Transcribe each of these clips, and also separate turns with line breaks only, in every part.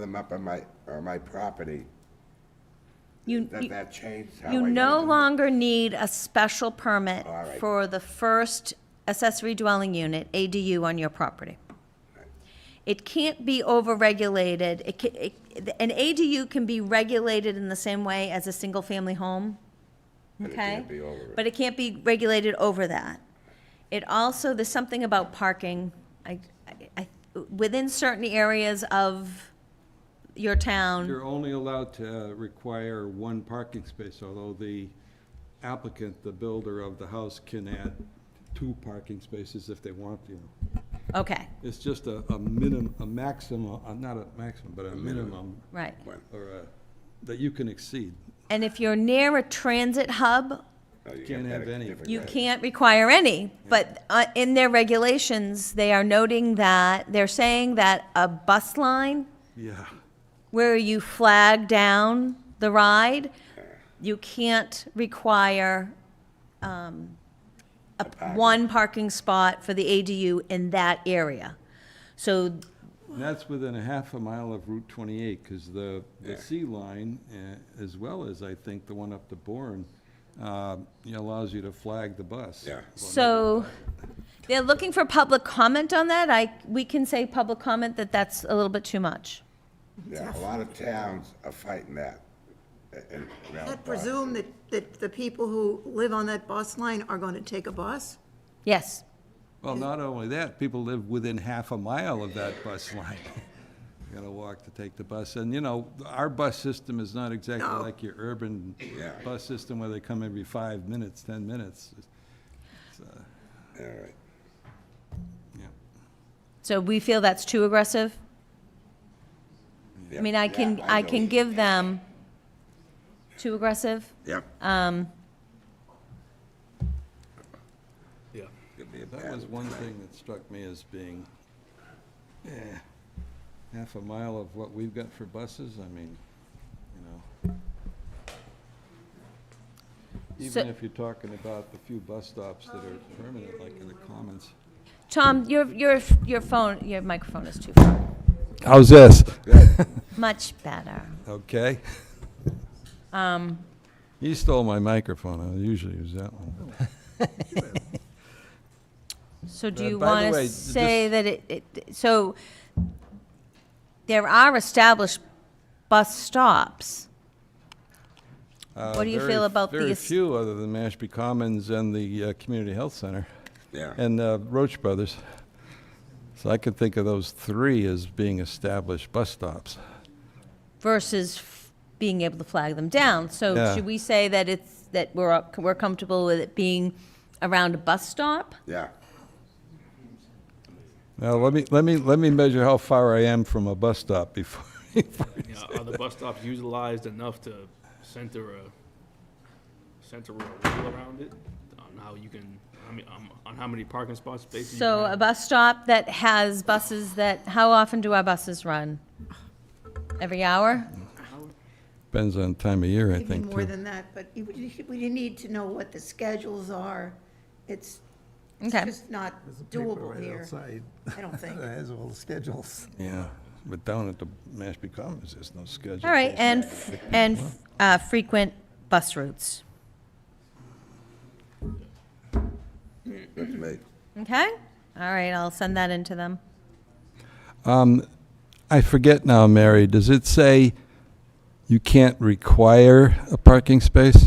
them up on my, on my property,
You,
that,
you-
that changed how I.
you
gotta
no
do it.
longer need a special permit
Oh, All right.
for the first accessory dwelling unit, ADU, on your property. It can't be overregulated. It ca- it, an ADU can be regulated in the same way as a single-family home.
But it
Okay?
can't be over it.
But it can't be regulated over that. It also, there's something about parking, I, I, I- within certain areas of your town.
You're only allowed to uh, require one parking space, although the applicant, the builder of the house, can add two parking spaces if they want to.
Okay,
It's just a, a minimum, a maximum, uh, not a maximum, but a minimum,
right.
or a, that you can exceed.
And if you're near a transit hub,
No, you
Can't
got
have
that
any.
different
you
way.
can't require any. But uh, in their regulations, they are noting that, they're saying that a bus line
Yeah.
where you flag down the ride, you can't require um, a- one parking spot for the ADU in that area. So,
And that's within a half a mile of Route 28, because the, the C line, eh, as well as, I think, the one up to Bourne, uh, you know, allows you to flag the bus.
Yeah.
so they're looking for public comment on that. I, we can say public comment that that's a little bit too much.
Yeah, a lot of towns are fighting that. in- around
I
Boston.
presume that, that the people who live on that bus line are going to take a bus?
Yes.
Well, not only that, people live within half a mile of that bus line. You Gotta walk to take the bus, and you know, our bus system is not exactly
No.
like your urban
Yeah.
bus system where they come every five minutes, ten minutes.
All right.
Yeah.
So we feel that's too aggressive? I
Yep.
mean, I can,
Yeah,
I
know.
can give them too aggressive?
Yep.
Um,
Yeah.
Could be a
That
bad
was one
tonight.
thing that struck me as being, eh, half a mile of what we've got for buses, I mean, you know.
So-
Even if you're talking about the few bus stops that are permanent, like in the Commons.
Tom, your, your, your phone, your microphone is too far.
How's this?
Much better.
Okay.
Um,
You stole my microphone, I usually use that one.
so do
Uh,
you
by the
want
way,
to
just-
say that it, it, so there are established bus stops.
Uh,
What do you
very-
feel about
Very
these-
few, other than Mashpee Commons and the uh, Community Health Center.
Yeah,
And uh, Roach Brothers. So I could think of those three as being established bus stops.
versus f- being able to flag them down. So
Yeah.
should we say that it's, that we're, up- we're comfortable with it being around a bus stop?
yeah.
Now, let me, let me, let me measure how far I am from a bus stop before.
You know, Are the bus stops utilized enough to center a, center a wheel around it? On how you can, I mean, um, on how many parking spots spaces? you
So
can
a
have?
bus stop that has buses that, how often do our buses run? Every hour?
Depends on time of year, I
Maybe
think,
more
too.
than that, but you- you should- we need to know what the schedules are. It's it's
Okay.
just not
There's a paper
doable
right
here.
outside
I don't think.
That has all the schedules.
Yeah, but down at the Mashpee Commons, there's no schedule.
All right, and, f- and uh, frequent bus routes,
That's me.
okay? All right, I'll send that into them.
I forget now, Mary, does it say you can't require a parking space?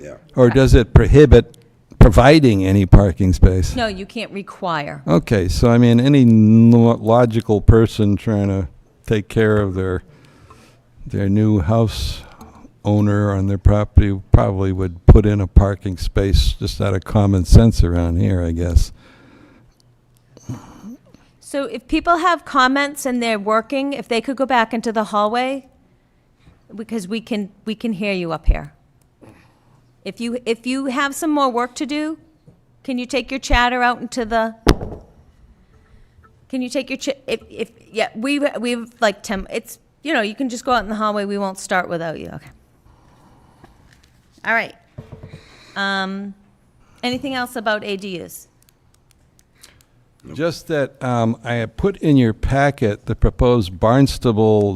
Yeah.
Or does it prohibit providing any parking space?
No, you can't require.
Okay, so I mean, any n- logical person trying to take care of their, their new house owner on their property probably would put in a parking space just out of common sense around here, I guess.
So if people have comments and they're working, if they could go back into the hallway, because we can, we can hear you up here. If you, if you have some more work to do, can you take your chatter out into the, can you take your, ch- if, if, yeah, we, we've like 10, it's, you know, you can just go out in the hallway, we won't start without you, okay? All right. Um, anything else about ADUs?
Just that, um, I had put in your packet the proposed Barnstable